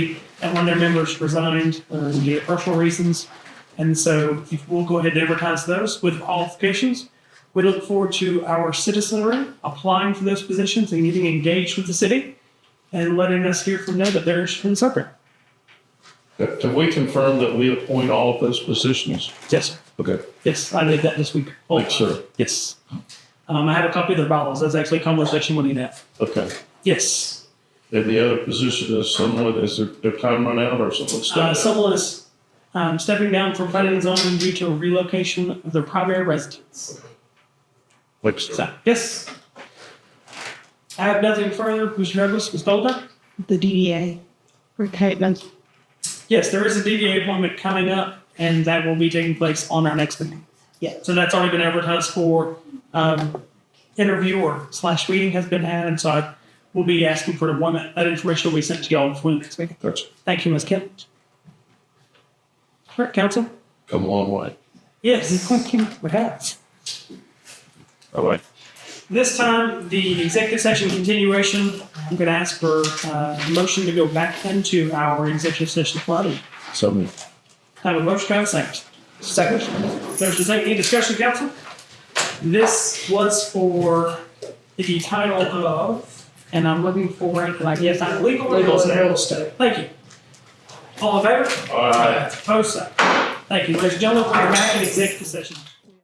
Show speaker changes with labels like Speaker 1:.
Speaker 1: and one of their members resigned um, due to personal reasons. And so if we'll go ahead and advertise those with qualifications. We look forward to our citizenry applying for those positions and getting engaged with the city and letting us hear from them that they're interested in serving.
Speaker 2: Have we confirmed that we appoint all of those positions?
Speaker 1: Yes, sir.
Speaker 2: Okay,
Speaker 1: Yes, I did that this week. Oh,
Speaker 2: thanks, sir.
Speaker 1: Yes. Um, I have a copy of the bylaws. That's actually a conversation we need to have.
Speaker 2: Okay.
Speaker 1: Yes.
Speaker 2: And the other position is someone, is their, their time run out or someone
Speaker 1: Uh,
Speaker 2: stuck?
Speaker 1: someone is um, stepping down from planning and zoning due to relocation of their primary residence.
Speaker 2: Thanks, sir.
Speaker 1: So, yes. I have nothing further. Mr. Douglas, Ms. Bolden?
Speaker 3: the DDA retainment.
Speaker 1: Yes, there is a DDA appointment coming up, and that will be taking place on our next meeting.
Speaker 3: Yeah.
Speaker 1: So that's already been advertised for. Um, interviewer slash meeting has been had, and so I will be asking for the one that, that information will be sent to y'all before the next meeting.
Speaker 2: That's
Speaker 1: Thank you, Ms. Kemp. All right, council?
Speaker 2: come a long way.
Speaker 1: Yes. What happens?
Speaker 2: All right.
Speaker 1: This time, the executive session continuation, I'm going to ask for uh, a motion to go back into our executive session flooding.
Speaker 2: So moved.
Speaker 1: Have a motion, can I have a second? Second. Motion second, any discussion, council? This was for the title of, and I'm looking for it, like, yes, I'm legal. Legal and real estate. Thank you. All in favor?
Speaker 2: All right.
Speaker 1: Post side. Thank you, ladies and gentlemen, we're back in executive session.